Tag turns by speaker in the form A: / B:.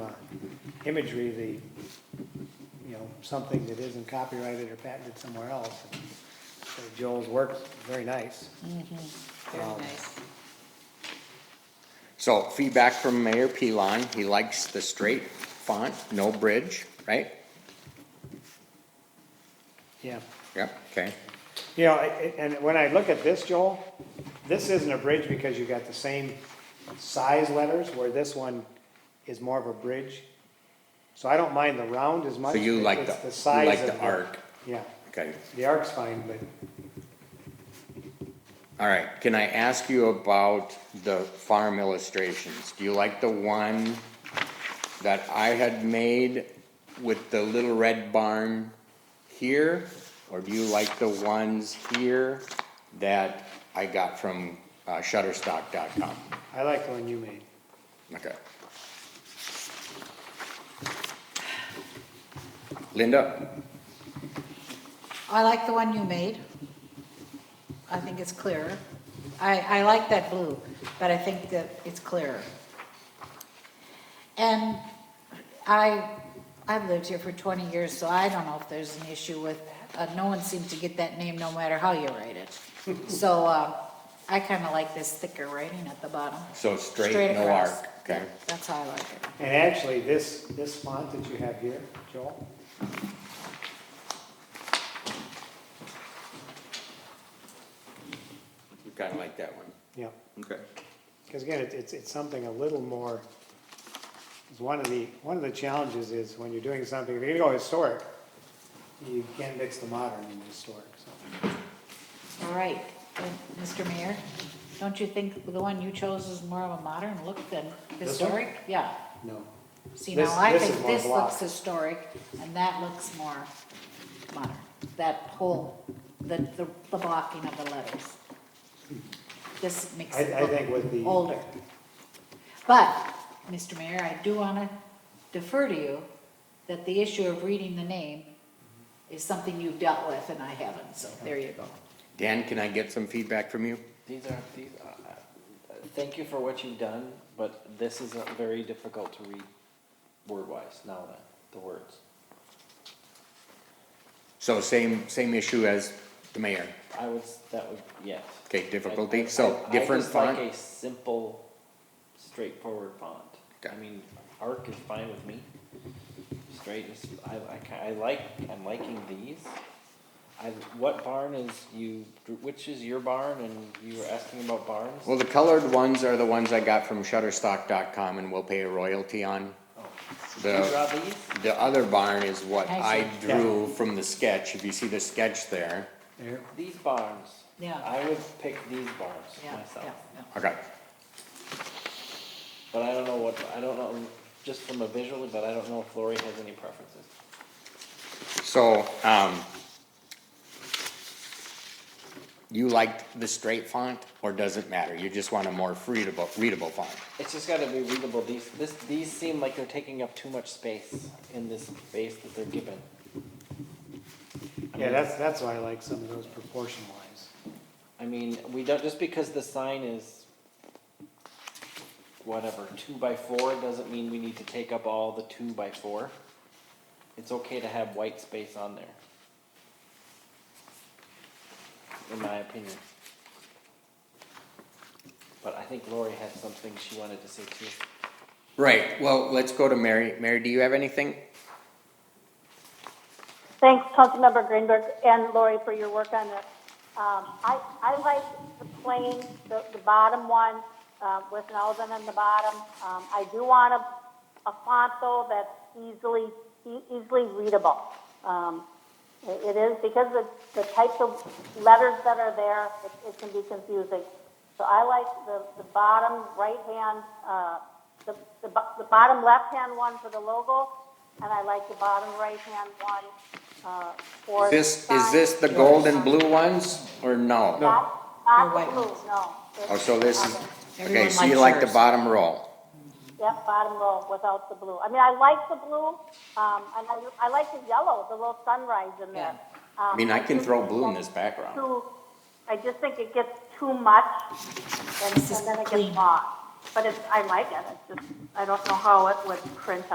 A: imagery, the, you know, something that isn't copyrighted or patented somewhere else. So Joel's work's very nice.
B: Very
A: Um,
B: nice.
C: So feedback from Mayor Pilon, he likes the straight font, no bridge, right?
A: Yeah.
C: Yep, okay,
A: You know, I- and when I look at this, Joel, this isn't a bridge because you got the same size letters where this one is more of a bridge. So I don't mind the round as much.
C: so you like
A: It's
C: the, you
A: size
C: like
A: of
C: the arc,
A: Yeah,
C: okay.
A: the arc's fine, but
C: All right, can I ask you about the farm illustrations? Do you like the one that I had made with the little red barn here? Or do you like the ones here that I got from uh, shutterstock.com?
A: I like the one you made.
C: Okay. Linda,
B: I like the one you made. I think it's clearer. I, I like that blue, but I think that it's clearer. And I, I've lived here for 20 years, so I don't know if there's an issue with, uh, no one seems to get that name no matter how you write it. So, uh, I kinda like this thicker writing at the bottom.
C: so straight,
B: Straight
C: no
B: across.
C: arc, okay?
B: That's how I like it.
A: And actually, this, this font that you have here, Joel,
C: You kinda like that one,
A: yeah,
C: okay?
A: because again, it's- it's, it's something a little more, it's one of the, one of the challenges is when you're doing something, if you're gonna go historic, you can't mix the modern and the historic, so.
B: All right, then, Mr. Mayor, don't you think the one you chose is more of a modern look than
A: This one?
B: historic? Yeah,
A: No.
B: see,
A: This-
B: now I
A: this is
B: think
A: more
B: this
A: block.
B: looks historic, and that looks more modern, that whole, the, the the blocking of the letters. This makes
A: I-
B: it
A: I think with the-
B: look older. But, Mr. Mayor, I do want to defer to you that the issue of reading the name is something you've dealt with, and I haven't, so there you go.
C: Dan, can I get some feedback from you?
D: These are, these, uh, uh, thank you for what you've done, but this is uh, very difficult to read word-wise now that, the words.
C: So same, same issue as the mayor,
D: I would, s- that would, yes.
C: okay,
D: I- I-
C: difficulty,
D: I-
C: so different
D: I just like
C: font?
D: a simple, straightforward font. I
C: Okay.
D: mean, arc is fine with me. Straight is, I like, I like, I'm liking these. I, what barn is you, which is your barn, and you were asking about barns?
C: Well, the colored ones are the ones I got from shutterstock.com and we'll pay a royalty on.
D: Oh. You
C: The,
D: draw these?
C: the other barn is what
B: I
C: I
B: see.
C: drew from the sketch, if you see the sketch there.
A: There,
D: These barns.
B: Yeah.
D: I would pick these barns
B: Yeah, yeah,
D: myself,
B: yeah.
C: Okay,
D: but I don't know what, I don't know, just from a visually, but I don't know if Lori has any preferences.
C: so, um, you liked the straight font or does it matter? You just want a more readable, readable font?
D: It's just gotta be readable, these, this, these seem like they're taking up too much space in this space that they're given.
A: yeah, that's, that's why I like some of those proportion wise.
D: I mean, we don't, just because the sign is whatever, two by four, doesn't mean we need to take up all the two by four. It's okay to have white space on there. In my opinion. But I think Lori had something she wanted to say too.
C: Right, well, let's go to Mary. Mary, do you have anything?
E: Thanks, Councilmember Greenberg and Lori for your work on this. Um, I, I like the plain, the, the bottom one, uh, with an L in the bottom. Um, I do want a, a font though that's easily, e- easily readable. Um, it it is because the, the types of letters that are there, it, it can be confusing. So I like the, the bottom right hand, uh, the, the, bo- the bottom left hand one for the logo, and I like the bottom right hand one, uh, for. the
C: This, is
E: sign.
C: this the gold and blue ones or
B: Your
C: no?
E: Not, not
B: white
E: the blue,
B: ones.
E: no.
C: Oh, so this is, okay,
B: Everyone
C: so you
B: likes
C: like the
B: yours.
C: bottom row?
E: Yep, bottom row without the blue. I mean, I like the blue, um, and I, I like the yellow, the little sunrise in there.
C: I mean, I can throw blue in this background.
E: too, I just think it gets too much, and
B: This is
E: and then it
B: clean.
E: gets lost. But it's, I like it, it's just, I don't know how it would print